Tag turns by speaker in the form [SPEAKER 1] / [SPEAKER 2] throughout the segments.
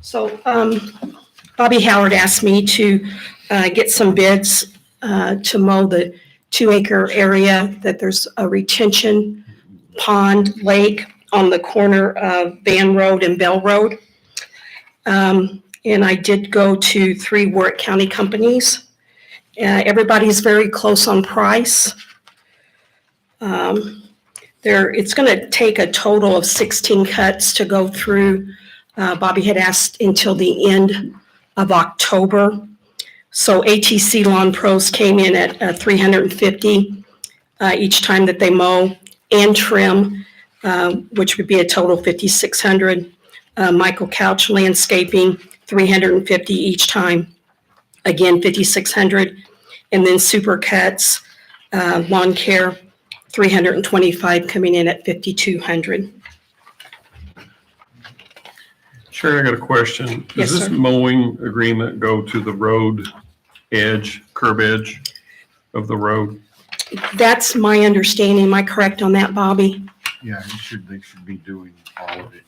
[SPEAKER 1] So um, Bobby Howard asked me to uh, get some bids uh, to mow the two-acre area that there's a retention pond lake on the corner of Van Road and Bell Road. Um, And I did go to three Warwick County companies. Uh, Everybody's very close on price. Um, There, it's going to take a total of 16 cuts to go through uh, Bobby had asked until the end of October. So ATC Lawn Pros came in at uh, 350 uh, each time that they mow and trim, uh, which would be a total 5,600. Uh, Michael Couch Landscaping, 350 each time, again 5,600. And then Supercuts uh, Lawn Care, 325 coming in at 5,200.
[SPEAKER 2] Sharon, I got a question.
[SPEAKER 1] Yes,
[SPEAKER 2] Does this
[SPEAKER 1] sir.
[SPEAKER 2] mowing agreement go to the road edge, curb edge of the road?
[SPEAKER 1] That's my understanding. Am I correct on that, Bobby?
[SPEAKER 3] Yeah, you should, they should be doing all of it.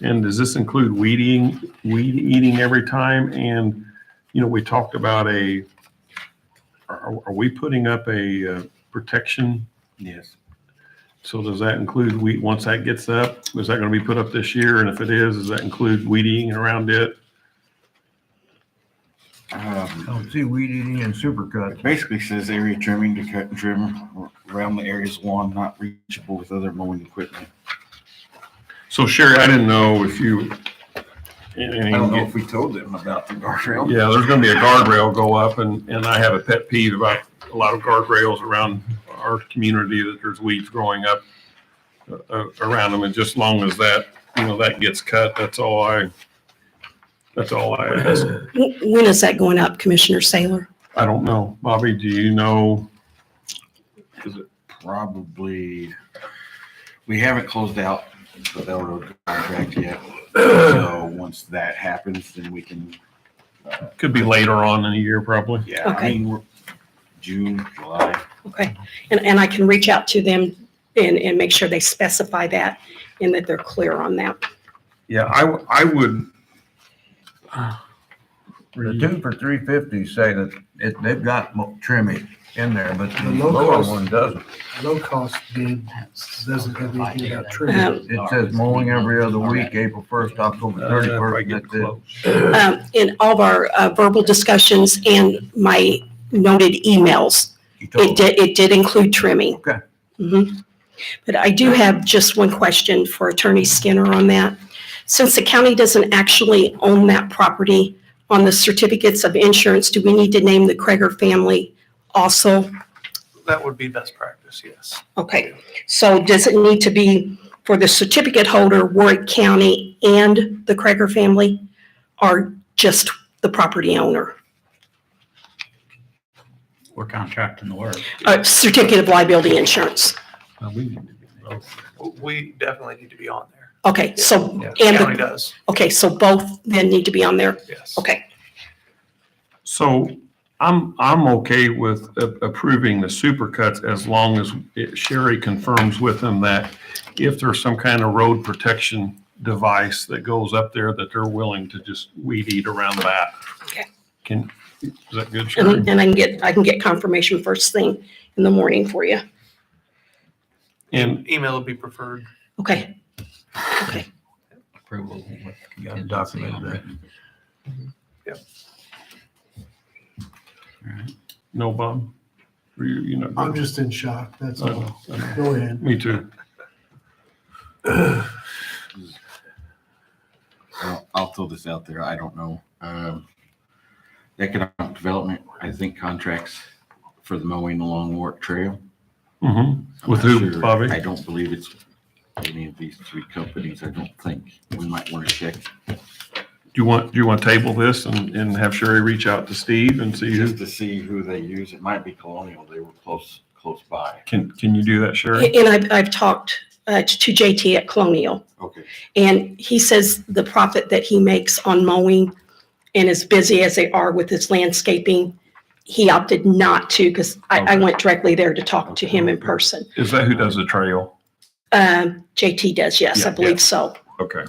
[SPEAKER 2] And does this include weeding, weed eating every time? And, you know, we talked about a, are, are we putting up a uh, protection?
[SPEAKER 3] Yes.
[SPEAKER 2] So does that include weed, once that gets up, is that going to be put up this year? And if it is, does that include weeding around it?
[SPEAKER 3] Um,
[SPEAKER 4] Oh, see, weed eating and supercut.
[SPEAKER 3] it basically says area trimming to cut and trim around the area's lawn not reachable with other mowing equipment.
[SPEAKER 2] So Sherry, I didn't know if you.
[SPEAKER 3] I don't know if we told them about the guardrail.
[SPEAKER 2] Yeah, there's gonna be a guardrail go up and, and I have a pet peeve about a lot of guardrails around our community that there's weeds growing up uh, uh, around them and just long as that, you know, that gets cut, that's all I, that's all I ask.
[SPEAKER 1] Wh- When is that going up, Commissioner Saylor?
[SPEAKER 2] I don't know. Bobby, do you know? Is it,
[SPEAKER 3] Probably, we haven't closed out the Bell Road contract yet. So once that happens, then we can,
[SPEAKER 2] could be later on in the year probably.
[SPEAKER 3] yeah, I
[SPEAKER 1] Okay.
[SPEAKER 3] mean, we're June, July.
[SPEAKER 1] Okay, and, and I can reach out to them and, and make sure they specify that and that they're clear on that.
[SPEAKER 2] Yeah, I, w- I would.
[SPEAKER 4] The two for three fifty say that it, they've got mo- trimming in there, but the
[SPEAKER 5] The low
[SPEAKER 4] lower
[SPEAKER 5] cost-
[SPEAKER 4] one doesn't.
[SPEAKER 5] low-cost bid doesn't have anything about
[SPEAKER 1] Um,
[SPEAKER 5] trim.
[SPEAKER 4] It says mowing every other week, April first,
[SPEAKER 3] Uh,
[SPEAKER 4] October
[SPEAKER 2] Probably
[SPEAKER 4] thirty-first,
[SPEAKER 2] get
[SPEAKER 4] that's it.
[SPEAKER 2] close.
[SPEAKER 1] Um, in all of our uh, verbal discussions and my noted emails,
[SPEAKER 4] You told
[SPEAKER 1] it
[SPEAKER 4] them.
[SPEAKER 1] did, it did include trimming.
[SPEAKER 4] Okay.
[SPEAKER 1] Mhm. But I do have just one question for Attorney Skinner on that. Since the county doesn't actually own that property on the certificates of insurance, do we need to name the Kreger family also?
[SPEAKER 6] That would be best practice, yes.
[SPEAKER 1] Okay, so does it need to be for the certificate holder, Warwick County and the Crager family? Or just the property owner?
[SPEAKER 7] we're contracting the work.
[SPEAKER 1] Uh, certificate of liability insurance.
[SPEAKER 2] Now, we need to be- oh,
[SPEAKER 6] We definitely need to be on there.
[SPEAKER 1] Okay, so,
[SPEAKER 6] Yeah,
[SPEAKER 1] and,
[SPEAKER 6] County
[SPEAKER 1] the-
[SPEAKER 6] does,
[SPEAKER 1] okay, so both then need to be on there?
[SPEAKER 6] yes.
[SPEAKER 1] Okay,
[SPEAKER 2] So I'm, I'm okay with a- approving the supercuts as long as it- Sherry confirms with them that if there's some kind of road protection device that goes up there, that they're willing to just weed eat around that.
[SPEAKER 1] Okay.
[SPEAKER 2] Can, is that good, Sherry?
[SPEAKER 1] and, and I can get, I can get confirmation first thing in the morning for you.
[SPEAKER 2] And
[SPEAKER 6] Email would be preferred.
[SPEAKER 1] Okay, okay,
[SPEAKER 7] Approval with
[SPEAKER 4] You gotta
[SPEAKER 7] contingency
[SPEAKER 4] document
[SPEAKER 7] on
[SPEAKER 4] that.
[SPEAKER 7] written.
[SPEAKER 6] Yep.
[SPEAKER 7] All right.
[SPEAKER 2] no, Bob? Were you, you know?
[SPEAKER 5] I'm just in shock, that's
[SPEAKER 2] I
[SPEAKER 5] all.
[SPEAKER 2] know, I know.
[SPEAKER 5] Go ahead.
[SPEAKER 2] Me too.
[SPEAKER 3] I'll- I'll throw this out there, I don't know. Um, Economic development, I think contracts for the mowing along Warwick Trail.
[SPEAKER 2] Mhm.
[SPEAKER 3] I'm
[SPEAKER 2] With
[SPEAKER 3] not
[SPEAKER 2] who,
[SPEAKER 3] sure.
[SPEAKER 2] Bobby?
[SPEAKER 3] I don't believe it's any of these three companies, I don't think. We might want to check.
[SPEAKER 2] Do you want, do you want to table this and, and have Sherry reach out to Steve and see
[SPEAKER 3] Just
[SPEAKER 2] who,
[SPEAKER 3] to see who they use, it might be Colonial, they were close, close by.
[SPEAKER 2] can, can you do that, Sherry?
[SPEAKER 1] and I've, I've talked, uh, to JT at Colonial.
[SPEAKER 3] Okay.
[SPEAKER 1] And he says the profit that he makes on mowing and as busy as they are with his landscaping, he opted not to because I, I went directly there to talk to him in person.
[SPEAKER 2] Is that who does the trail?
[SPEAKER 1] Um, JT does, yes, I
[SPEAKER 2] Yeah,
[SPEAKER 1] believe so.
[SPEAKER 2] Okay.